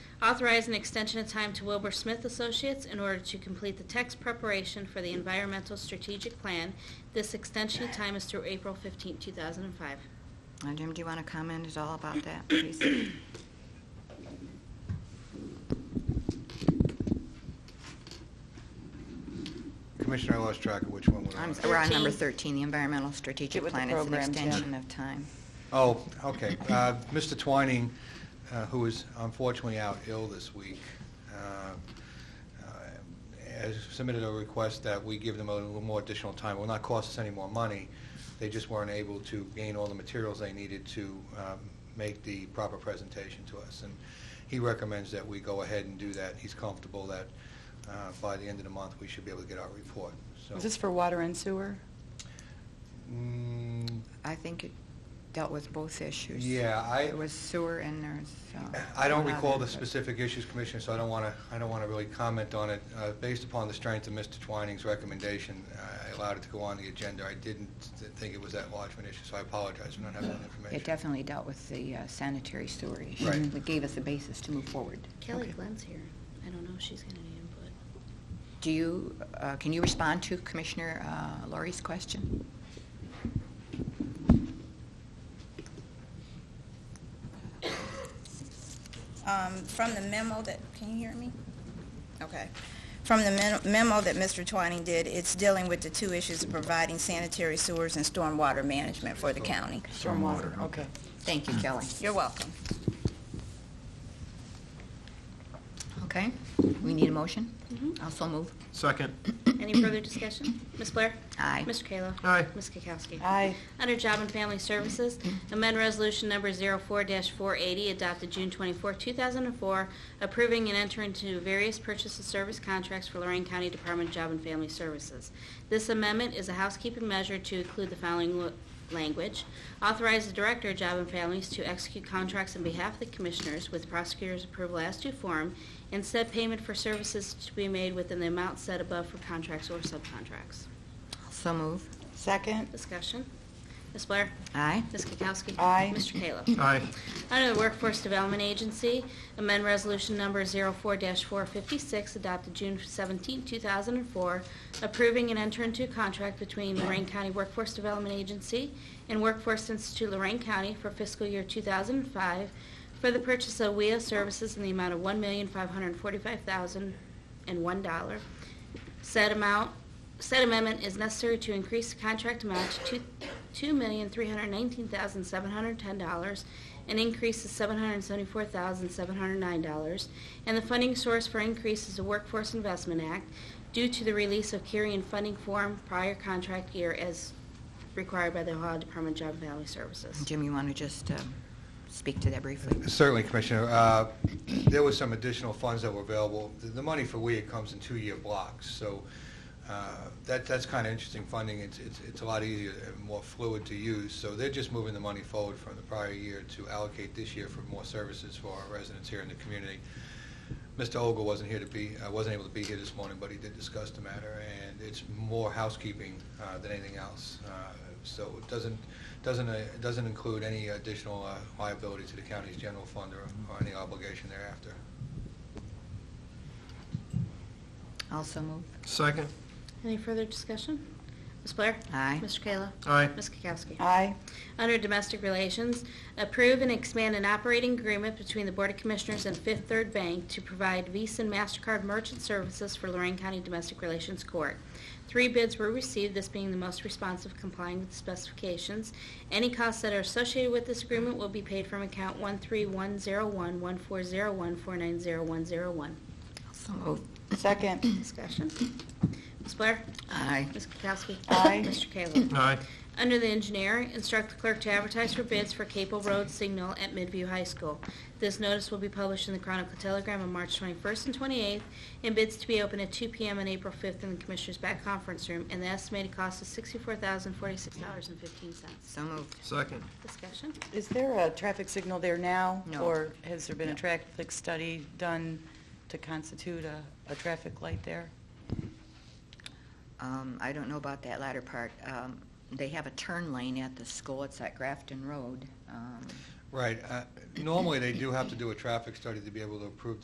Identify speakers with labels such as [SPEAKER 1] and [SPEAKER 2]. [SPEAKER 1] Authorize an extension of time to Wilbur Smith Associates in order to complete the text preparation for the environmental strategic plan. This extension of time is through April 15, 2005.
[SPEAKER 2] Uh, Jim, do you want to comment at all about that, please?
[SPEAKER 3] Commissioner, I lost track of which one we're
[SPEAKER 2] I'm
[SPEAKER 3] on.
[SPEAKER 2] s- We're on number
[SPEAKER 1] 13.
[SPEAKER 2] 13, the Environmental Strategic
[SPEAKER 4] Get with the
[SPEAKER 2] Plan. It's an
[SPEAKER 4] program, Jim.
[SPEAKER 2] extension of time.
[SPEAKER 3] Oh, okay. Uh, Mr. Twining, uh, who is unfortunately out ill this week, uh, uh, has submitted a request that we give them a little more additional time. It will not cost us any more money. They just weren't able to gain all the materials they needed to um, make the proper presentation to us. And he recommends that we go ahead and do that. He's comfortable that uh, by the end of the month, we should be able to get our report. So-
[SPEAKER 4] Is this for water and sewer?
[SPEAKER 3] Mm,
[SPEAKER 2] I think it dealt with both issues.
[SPEAKER 3] Yeah, I-
[SPEAKER 2] It was sewer and there's... uh,
[SPEAKER 3] I don't
[SPEAKER 2] one
[SPEAKER 3] recall
[SPEAKER 2] other,
[SPEAKER 3] the
[SPEAKER 2] but-
[SPEAKER 3] specific issues, Commissioner, so I don't want to, I don't want to really comment on it. Uh, Based upon the strength of Mr. Twining's recommendation, I allowed it to go on the agenda. I didn't th- think it was that large of an issue, so I apologize for not having that information.
[SPEAKER 2] It definitely dealt with the uh, sanitary sewer issue.
[SPEAKER 3] Right.
[SPEAKER 2] It gave us a basis to move forward.
[SPEAKER 1] Kelly
[SPEAKER 2] Okay.
[SPEAKER 1] Glenn's here. I don't know if she's going to need input.
[SPEAKER 2] Do you, uh, can you respond to Commissioner uh, Laurie's question?
[SPEAKER 5] um, from the memo that, can you hear me? Okay. From the men- memo that Mr. Twining did, it's dealing with the two issues of providing sanitary sewers and stormwater management for the county.
[SPEAKER 4] Stormwater. Okay.
[SPEAKER 2] Thank you, Kelly.
[SPEAKER 5] You're welcome.
[SPEAKER 2] Okay, we need a motion?
[SPEAKER 1] Mhm.
[SPEAKER 2] Also move.
[SPEAKER 6] Second.
[SPEAKER 1] Any further discussion? Ms. Blair?
[SPEAKER 2] Mm-hmm. Aye.
[SPEAKER 1] Mr. Kayla?
[SPEAKER 6] Aye.
[SPEAKER 1] Ms. Kukowski?
[SPEAKER 4] Aye.
[SPEAKER 1] Under Job and Family Services, amend Resolution Number 04-480, adopted June 24, 2004, approving and entering into various purchase and service contracts for Lorraine County Department of Job and Family Services. This amendment is a housekeeping measure to include the following lo- language. Authorize the Director of Job and Families to execute contracts on behalf of the Commissioners with prosecutor's approval as to form, and set payment for services to be made within the amount set above for contracts or subcontracts.
[SPEAKER 2] So move.
[SPEAKER 4] Second?
[SPEAKER 1] Discussion. Ms. Blair?
[SPEAKER 2] Aye.
[SPEAKER 1] Ms. Kukowski?
[SPEAKER 4] Aye.
[SPEAKER 1] Mr. Kayla?
[SPEAKER 6] Aye.
[SPEAKER 1] Under the Workforce Development Agency, amend Resolution Number 04-456, adopted June 17, 2004, approving an enter into a contract between Lorraine County Workforce Development Agency and Workforce Institute Lorraine County for fiscal year 2005 for the purchase of WIA services in the amount of $1,545,001. Said amount, said amendment is necessary to increase the contract amount to two- $2,319,710, an increase of $774,709, and the funding source for increase is the Workforce Investment Act due to the release of carrying funding form prior contract year as required by the Ohio Department of Job and Family Services.
[SPEAKER 2] Jim, you want to just uh, speak to that briefly?
[SPEAKER 3] Certainly, Commissioner. Uh, There was some additional funds that were available. The- The money for WEA comes in two-year blocks, so uh, that, that's kind of interesting funding. It's, it's it's a lot easier and more fluid to use, so they're just moving the money forward from the prior year to allocate this year for more services for our residents here in the community. Mr. Olga wasn't here to be, uh, wasn't able to be here this morning, but he did discuss the matter, and it's more housekeeping uh, than anything else. Uh, So it doesn't, doesn't, uh, it doesn't include any additional uh, liability to the county's general fund or or any obligation thereafter.
[SPEAKER 2] Also move.
[SPEAKER 6] Second.
[SPEAKER 1] Any further discussion? Ms. Blair?
[SPEAKER 2] Aye.
[SPEAKER 1] Mr. Kayla?
[SPEAKER 6] Aye.
[SPEAKER 1] Ms. Kukowski?
[SPEAKER 4] Aye.
[SPEAKER 1] Under Domestic Relations, approve and expand an operating agreement between the Board of Commissioners and Fifth Third Bank to provide Visa and MasterCard merchant services for Lorraine County Domestic Relations Court. Three bids were received, this being the most responsive complying with the specifications. Any costs that are associated with this agreement will be paid from account 131011401490101.
[SPEAKER 2] Also move.
[SPEAKER 4] Second?
[SPEAKER 1] Discussion. Ms. Blair?
[SPEAKER 2] Aye.
[SPEAKER 1] Ms. Kukowski?
[SPEAKER 4] Aye.
[SPEAKER 1] Mr. Kayla?
[SPEAKER 6] Aye.
[SPEAKER 1] Under the engineer, instruct the clerk to advertise for bids for Capel Road signal at Midview High School. This notice will be published in the Chronicle Telegram on March 21st and 28th, and bids to be open at 2 PM on April 5th in the Commissioners' back conference room, and the estimated cost is $64,046.15.
[SPEAKER 2] So moved.
[SPEAKER 6] Second.
[SPEAKER 1] Discussion?
[SPEAKER 4] Is there a traffic signal there now?
[SPEAKER 2] No.
[SPEAKER 4] Or has there been a
[SPEAKER 2] No.
[SPEAKER 4] traffic study done to constitute a, a traffic light there?
[SPEAKER 2] Um, I don't know about that latter part. Um, They have a turn lane at the school. It's at Grafton Road. Um,
[SPEAKER 3] Right. uh, Normally, they do have to do a traffic study to be able to approve